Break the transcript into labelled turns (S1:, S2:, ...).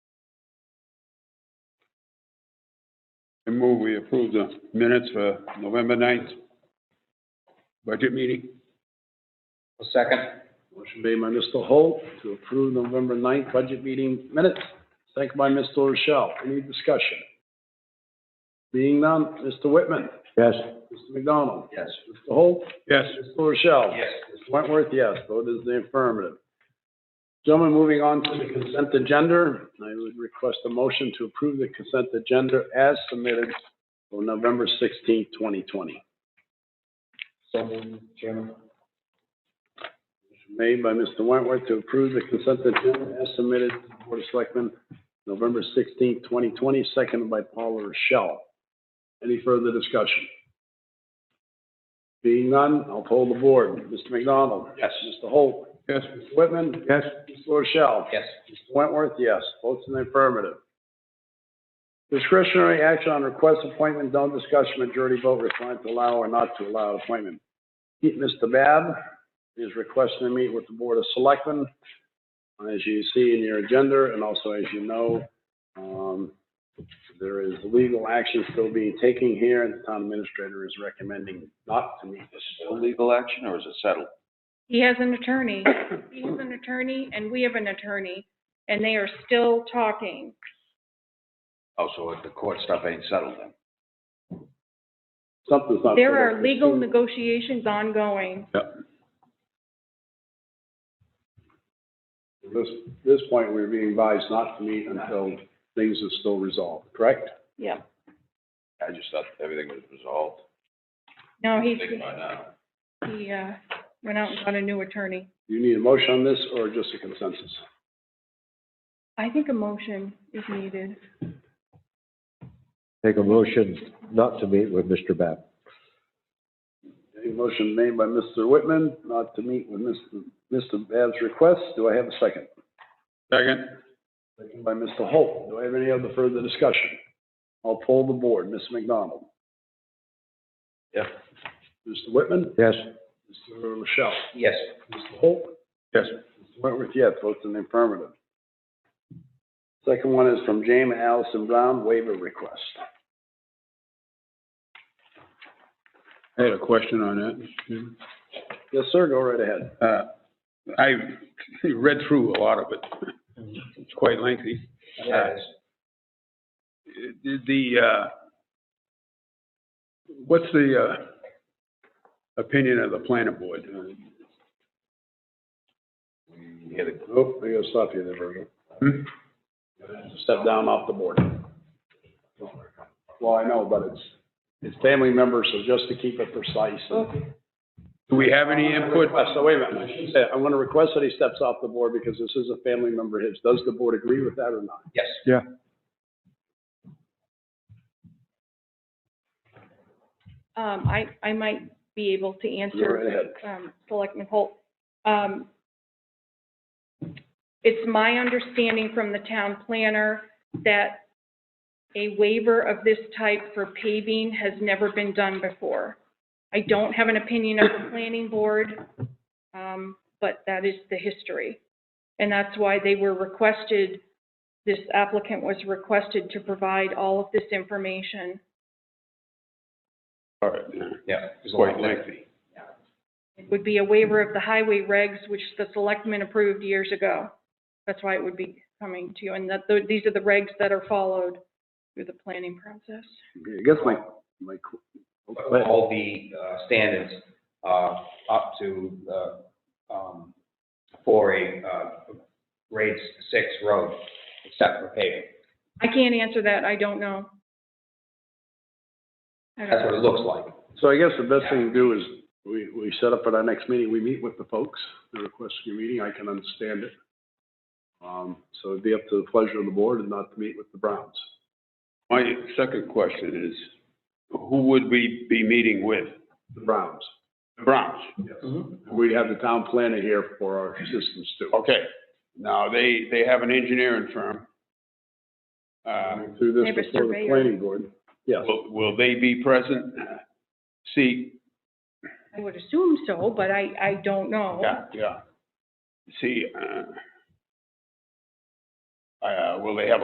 S1: I move we approve the minutes for November 9th budget meeting.
S2: A second.
S3: Motion made by Mr. Holt to approve November 9th budget meeting minutes, second by Mr. Rochelle. Any discussion? Being none, Mr. Whitman,
S1: Yes.
S3: Mr. McDonald,
S2: Yes.
S3: Mr. Holt,
S1: Yes.
S3: Mr. Rochelle.
S2: Yes.
S3: Mr. Wentworth, yes, vote is the affirmative. Gentlemen, moving on to the consent agenda, I would request a motion to approve the consent agenda as submitted for November 16th, 2020.
S2: So moved, Chairman.
S3: Motion Made by Mr. Wentworth to approve the consent agenda as submitted to the Board of Selectmen, November 16th, 2020, seconded by Paula Rochelle. Any further discussion? Being none, I'll poll the board. Mr. McDonald?
S2: Yes.
S3: Mr. Holt?
S1: Yes.
S3: Mr. Whitman?
S1: Yes.
S3: Mr. Rochelle?
S2: Yes.
S3: Mr. Wentworth, yes. Votes in the affirmative. Discretionary action on request appointment, no discussion, majority vote required to allow or not to allow appointment. Mr. Bab is requesting to meet with the Board of Selectmen. As you see in your agenda, and also as you know, um, there is legal action still being taken here, and the town administrator is recommending not to meet this.
S4: legal action or is it settled?
S5: He has an attorney. He has an attorney and we have an attorney and they are still talking.
S4: Oh, so the court stuff ain't settled then?
S3: Something's not.
S5: There are legal
S3: It's too-
S5: negotiations ongoing.
S3: At this, this point, we're being advised not to meet until things are still resolved, correct?
S5: Yeah.
S4: I just thought everything was resolved.
S5: No, he,
S4: Think by now.
S5: he, uh, went out and got a new attorney.
S3: Do you need a motion on this or just a consensus?
S5: I think a motion is needed.
S6: Make a motion not to meet with Mr. Babb.
S3: A motion made by Mr. Whitman not to meet with Mr. Mr. Babb's request. Do I have a second?
S1: Second.
S3: Second by Mr. Holt. Do I have any other further discussion? I'll poll the board. Ms. McDonald?
S4: Yes.
S3: Mr. Whitman?
S6: Yes,
S3: Mr. Rochelle?
S2: Yes.
S3: Mr. Holt?
S1: Yes.
S3: Mr. Wentworth, yes, votes in the affirmative. Second one is from James and Allison Brown, waiver request.
S1: I had a question on that.
S3: Yes, sir, go right ahead.
S1: Uh, I read through a lot of it. It's quite lengthy.
S2: Yes.
S1: The, uh, what's the uh, opinion of the planning board?
S4: You had a-
S3: Oh, I gotta stop you there, Virgil.
S1: Hmm?
S3: Step down off the board. Well, I know, but it's, it's family members, so just to keep it precise. and-
S1: Do we have any input?
S3: Uh, So wait a minute, I should say, I want to request that he steps off the board because this is a family member of his. Does the board agree with that or not?
S2: Yes.
S5: Um, I, I might be able to
S3: Go right
S5: answer,
S3: ahead.
S5: um, Selectman Holt. Um, it's my understanding from the town planner that a waiver of this type for paving has never been done before. I don't have an opinion of the planning board, um, but that is the history. And that's why they were requested, this applicant was requested to provide all of this information.
S1: All right, yeah,
S2: Yeah. There's
S1: It's
S2: a lot
S1: quite
S2: there.
S1: lengthy.
S5: It would be a waiver of the highway regs, which the selectmen approved years ago. That's why it would be coming to you, and that, tho- these are the regs that are followed through the planning process.
S3: I guess my, my,
S2: all the uh, standards uh, up to uh, um, for a uh, grade six road, except for paving.
S5: I can't answer that, I don't know. I
S2: That's
S5: don't,
S2: what it looks like.
S3: so I guess the best thing to do is we, we set up at our next meeting, we meet with the folks, the request for your meeting, I can understand it. Um, so it'd be up to the pleasure of the board and not to meet with the Browns.
S1: My second question is, who would we be meeting with?
S3: the Browns.
S1: The Browns?
S3: We have the town planner here for our assistance too.
S1: Okay, now, they, they have an engineering firm. Uh,
S3: Um, Through this
S5: Neighbor
S3: before the
S5: surveyor.
S3: planning board. Yes,
S1: Will, will they be present? See,
S5: I would assume so, but I, I don't know.
S1: yeah, yeah. See, uh, uh, will they have